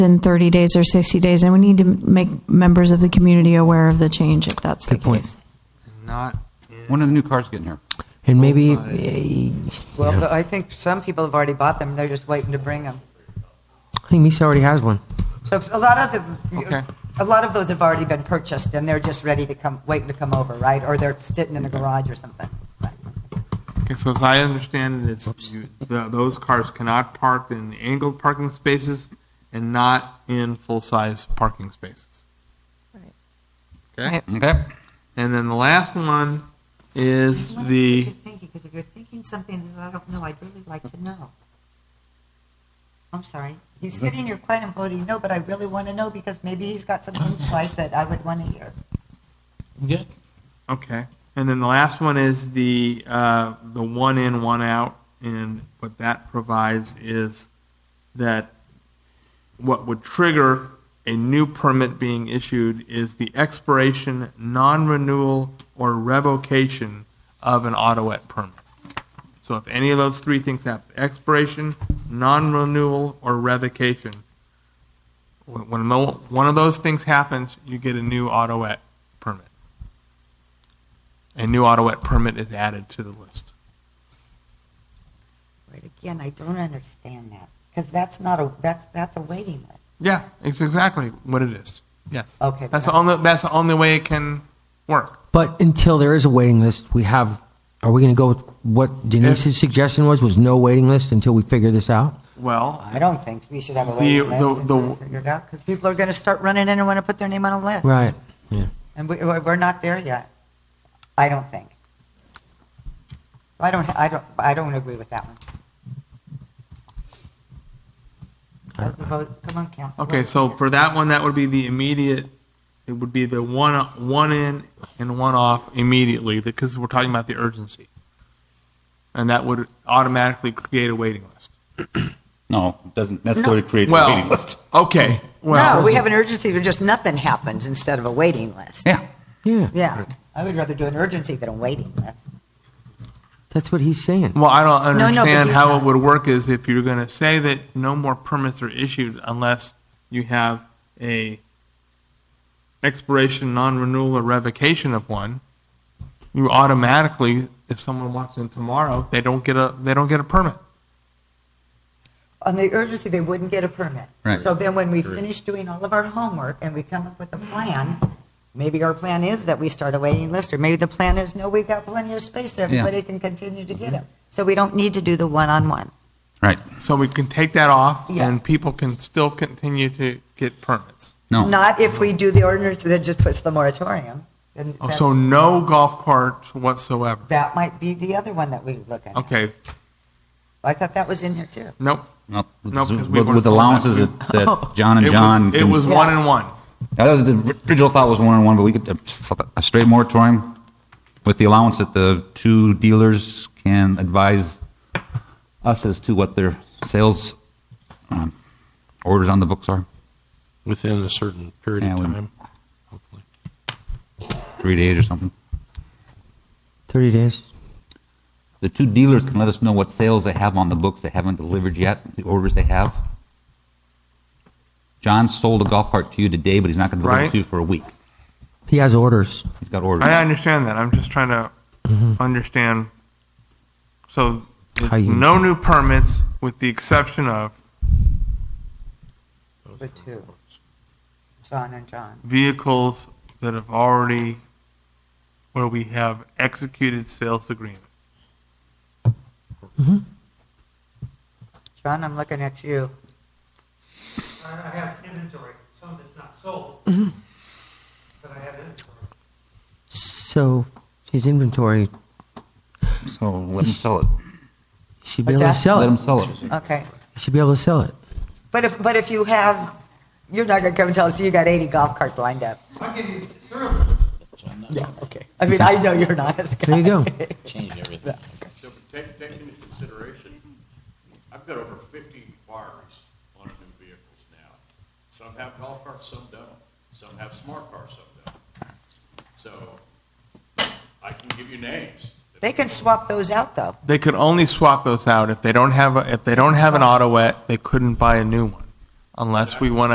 in 30 days or 60 days, and we need to make members of the community aware of the change if that's the Good point. case. Not, When are the new cars getting here? And maybe, eh, Well, but I think some people have already bought them. They're just waiting to bring them. I think Misa already has one. So a lot of the, Okay. a lot of those have already been purchased and they're just ready to come, waiting to come over, right? Or they're sitting in a garage or something. Right. okay, so as I understand it, it's, you- th- those cars cannot park in angled parking spaces and not in full-size parking spaces. Okay? Right. Okay. And then the last one is the, Because if you're thinking something that I don't know, I'd really like to know. I'm sorry. He's sitting here quiet and voting no, but I really want to know because maybe he's got some insight that I would want to hear. Good. okay, and then the last one is the, uh, the one in, one out, and what that provides is that what would trigger a new permit being issued is the expiration, non-renewal, or revocation of an autoet permit. So if any of those three things happen, expiration, non-renewal, or revocation, when when mo- one of those things happens, you get a new autoet permit. A new autoet permit is added to the list. But again, I don't understand that because that's not a, that's, that's a waiting list. Yeah, it's exactly what it is. Yes. Okay. That's the only, that's the only way it can work. But until there is a waiting list, we have, are we going to go with what Denise's suggestion was, was no waiting list until we figure this out? Well, I don't think we should have a waiting The- the- list the- until it's figured out, because people are going to start running in and want to put their name on a list. Right. Yeah. And we, we're we're not there yet, I don't think. I don't, I don't, I don't agree with that one. How's the vote? Come on, Council. okay, so for that one, that would be the immediate, it would be the one, one in and one off immediately, because we're talking about the urgency. And that would automatically create a waiting list. No, it doesn't necessarily create the waiting Well, list. okay, well. No, we have an urgency, where just nothing happens instead of a waiting list. Yeah. Yeah. Yeah, I would rather do an urgency than a waiting list. That's what he's saying. Well, I don't no, but understand he's how not. it would work is if you're going to say that no more permits are issued unless you have a expiration, non-renewal, or revocation of one, you automatically, if someone walks in tomorrow, they don't get a, they don't get a permit. on the urgency, they wouldn't get a permit. Right. So then when we finish doing all of our homework and we come up with a plan, maybe our plan is that we start a waiting list, or maybe the plan is, no, we got plenty of space there, Yeah. everybody can continue to get them. So we don't need to do the one-on-one. Right. So we can take that off, Yes. and people can still continue to get permits. No. Not if we do the ordinance that just puts the moratorium. then Oh, that- So no golf carts whatsoever. That might be the other one that we look at. Okay, I thought that was in here too. nope. No, with, No, 'cause we with- weren't with told allowances that. that, that John and It was- John. It can- was Yeah. one and one. That was the original thought was one on one, but we could uh, flip it, a straight moratorium with the allowance that the two dealers can advise us as to what their sales um, orders on the books are. Within a certain period Yeah, of we- time, hopefully. three days or something. 30 days. The two dealers can let us know what sales they have on the books they haven't delivered yet, the orders they have. John sold a golf cart to you today, but he's not going to deliver Right. it to you for a week. He has orders. He's got orders. I understand that. I'm just trying to understand. So it's Mm-hmm. How you- no new permits with the exception of The two. John and John. vehicles that have already, where we have executed sales agreement. John, I'm looking at you. I I have inventory, some that's not sold. But I have inventory. So his inventory So let him sell it. he should be What's able to that? sell Let him it. sell it. Okay. He should be able to sell it. But if, but if you have, you're not gonna come and tell us you got 80 golf carts lined up. I'll give you serum. Yeah, okay. I mean, I know you're not as There you go. Changed everything. So but take, take into consideration, I've got over fifty inquiries on new vehicles now. Some have golf carts, some don't. Some have smart cars, some don't. So I can give you names. They can swap those out, though. They could only swap those out if they don't have, a- if they don't have an auto wet, they couldn't buy a new one unless we want